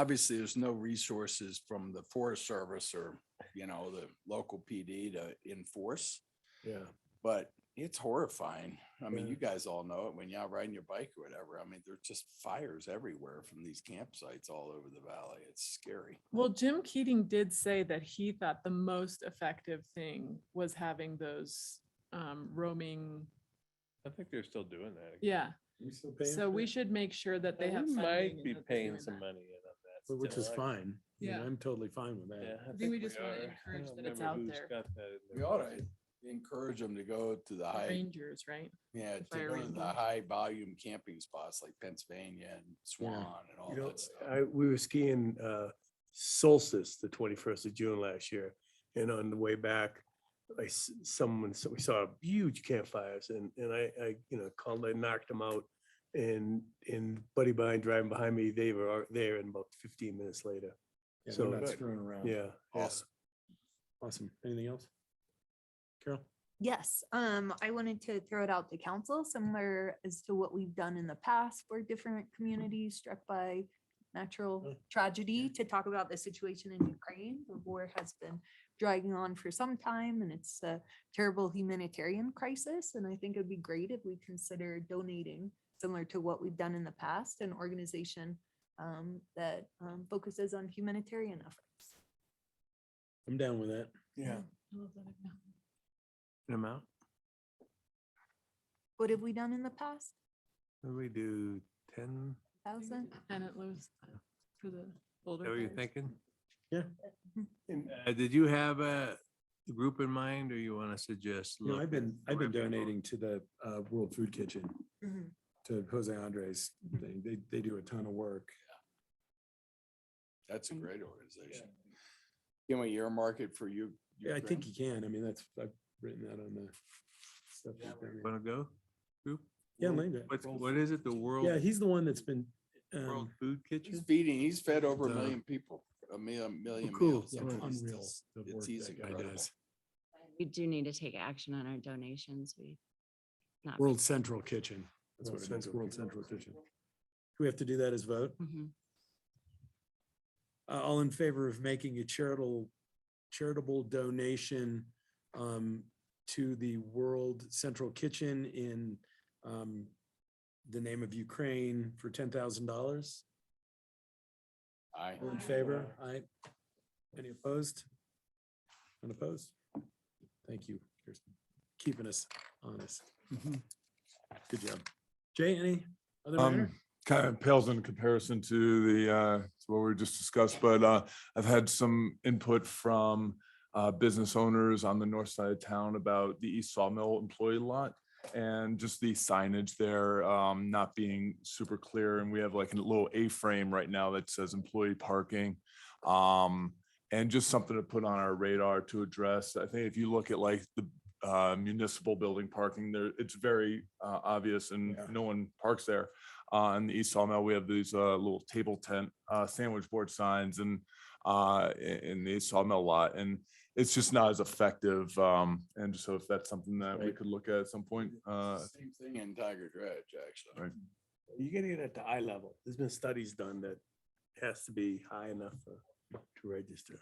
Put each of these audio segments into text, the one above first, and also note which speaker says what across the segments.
Speaker 1: obviously, there's no resources from the Forest Service or, you know, the local PD to enforce,
Speaker 2: Yeah,
Speaker 1: but it's horrifying. I mean,
Speaker 2: Yeah.
Speaker 1: you guys all know it when you're out riding your bike or whatever. I mean, there's just fires everywhere from these campsites all over the valley. It's scary.
Speaker 3: Well, Jim Keating did say that he thought the most effective thing was having those um, roaming.
Speaker 4: I think they're still doing that.
Speaker 3: Yeah,
Speaker 2: we still paying
Speaker 3: so
Speaker 2: for
Speaker 3: we
Speaker 2: it?
Speaker 3: should make sure that they
Speaker 4: We
Speaker 3: have. funding
Speaker 4: Might
Speaker 3: and
Speaker 4: be
Speaker 3: that they're
Speaker 4: paying
Speaker 3: doing
Speaker 4: some
Speaker 3: that.
Speaker 4: money in
Speaker 2: But
Speaker 4: on that.
Speaker 2: Which
Speaker 4: still.
Speaker 2: is
Speaker 4: I-
Speaker 2: fine. I mean,
Speaker 3: Yeah.
Speaker 2: I'm totally fine with
Speaker 4: Yeah.
Speaker 2: that.
Speaker 3: think we just wanna
Speaker 4: are. I
Speaker 3: encourage
Speaker 4: don't
Speaker 3: that it's
Speaker 4: remember
Speaker 3: out
Speaker 4: who's
Speaker 3: there.
Speaker 4: got that in
Speaker 1: We
Speaker 4: their
Speaker 1: ought
Speaker 4: budget.
Speaker 1: to encourage them to go to the
Speaker 3: The
Speaker 1: high,
Speaker 3: Rangers, right?
Speaker 1: yeah,
Speaker 3: the
Speaker 1: to
Speaker 3: fire
Speaker 1: go to the
Speaker 3: range.
Speaker 1: high volume camping spots like Pennsylvania and Swan and all
Speaker 2: You know,
Speaker 1: that stuff.
Speaker 2: I, we were skiing, uh, solstice, the twenty-first of June last year. And on the way back, I, s- someone, so we saw huge campfires and, and I, I, you know, called, I knocked them out. And, and buddy behind, driving behind me, they were out there and about fifteen minutes later.
Speaker 5: Yeah,
Speaker 2: So
Speaker 5: they're not
Speaker 2: good.
Speaker 5: screwing around.
Speaker 2: Yeah. yeah.
Speaker 1: Awesome.
Speaker 5: Awesome. Anything else? Carol?
Speaker 6: Yes, um, I wanted to throw it out to council similar as to what we've done in the past for different communities struck by
Speaker 2: Yeah.
Speaker 6: natural tragedy to talk about the situation in Ukraine. The war has been dragging on for some time and it's a terrible humanitarian crisis. And I think it'd be great if we consider donating similar to what we've done in the past, an organization um, that um, focuses on humanitarian efforts.
Speaker 2: I'm down with that.
Speaker 1: Yeah.
Speaker 2: An amount?
Speaker 6: What have we done in the past?
Speaker 2: We do ten,
Speaker 6: Thousand?
Speaker 3: And it was for the
Speaker 7: Is
Speaker 3: older.
Speaker 7: that what you're
Speaker 3: guys.
Speaker 7: thinking?
Speaker 2: and
Speaker 7: Uh, did you have a group in mind or you want to suggest?
Speaker 5: You know,
Speaker 7: look
Speaker 5: I've been, I've been
Speaker 7: peripheral?
Speaker 5: donating to the uh, World Food Kitchen,
Speaker 6: Mhm.
Speaker 5: to Jose Andres. They, they, they do a ton of work.
Speaker 1: That's a great organization. Can we earmark it for you?
Speaker 5: Yeah, I think
Speaker 1: Ukraine?
Speaker 5: you can. I mean, that's, I've written that on the stuff.
Speaker 1: Yeah,
Speaker 5: that's down there.
Speaker 7: Want to go? Group?
Speaker 5: Yeah, Linda.
Speaker 7: What's, what is it? The World,
Speaker 5: Yeah, he's the one that's been,
Speaker 7: World
Speaker 5: um,
Speaker 7: Food
Speaker 1: He's
Speaker 7: Kitchen?
Speaker 1: feeding, he's fed over a
Speaker 5: Duh.
Speaker 1: million people, a million, million
Speaker 5: cool.
Speaker 1: meals.
Speaker 5: yeah,
Speaker 1: I mean, it's
Speaker 5: Unreal.
Speaker 1: just-
Speaker 5: the
Speaker 1: it's
Speaker 5: work
Speaker 1: he's
Speaker 5: that guy
Speaker 1: incredible.
Speaker 5: does.
Speaker 8: We do need to take action on our donations. We. not-
Speaker 5: World Central Kitchen. That's
Speaker 2: World
Speaker 5: what it is,
Speaker 2: Central
Speaker 5: World
Speaker 2: Kitchen.
Speaker 5: Central Kitchen. We have to do that as vote.
Speaker 8: Mhm.
Speaker 5: Uh, all in favor of making a charitable, charitable donation um, to the World Central Kitchen in um, the name of Ukraine for ten thousand dollars?
Speaker 1: Aye.
Speaker 5: All in favor? Aye. Any opposed? Unopposed? Thank you, Kirsten, keeping us honest. Good job. Jay, any other matter?
Speaker 9: Um, kind of pales in comparison to the, uh, to what we just discussed, but, uh, I've had some input from, uh, business owners on the north side of town about the East Sawmill employee lot and just the signage there, um, not being super clear. And we have like a little A-frame right now that says employee parking. Um, and just something to put on our radar to address. I think if you look at like the uh, municipal building parking there, it's very uh, obvious and
Speaker 5: Yeah.
Speaker 9: no one parks there. Uh, On the East Sawmill, we have these uh, little table tent uh, sandwich board signs and uh, i- in the East Sawmill lot. And it's just not as effective. um, And so if that's something that we
Speaker 2: Right.
Speaker 9: could look at at some point, uh,
Speaker 1: Same thing in Tiger Dredge, actually.
Speaker 9: Right.
Speaker 2: You gotta get at the eye level. There's been studies done that has to be high enough for- to register.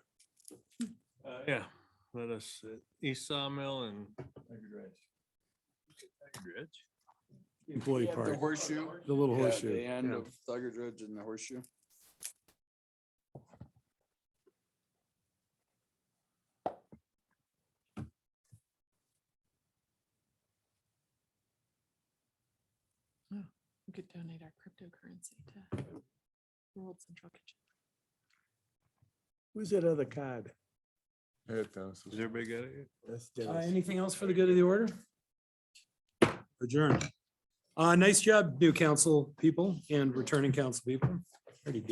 Speaker 7: Uh, Yeah, let us, uh, East Sawmill and. Tiger Dredge.
Speaker 5: Employee
Speaker 1: Yeah, The
Speaker 5: park,
Speaker 1: horseshoe.
Speaker 5: the little
Speaker 1: Yeah,
Speaker 5: horseshoe.
Speaker 1: The end
Speaker 5: yeah.
Speaker 1: of Tiger Dredge and the horseshoe.
Speaker 3: We could donate our cryptocurrency to the World Central Kitchen.
Speaker 2: Who's that other card?
Speaker 9: yeah, Dennis
Speaker 7: Does
Speaker 9: is-
Speaker 7: everybody get it?
Speaker 2: That's
Speaker 5: Uh,
Speaker 2: Dennis.
Speaker 5: Anything else for the good of the order? Adjourn. Uh, nice job, new council people and returning council people.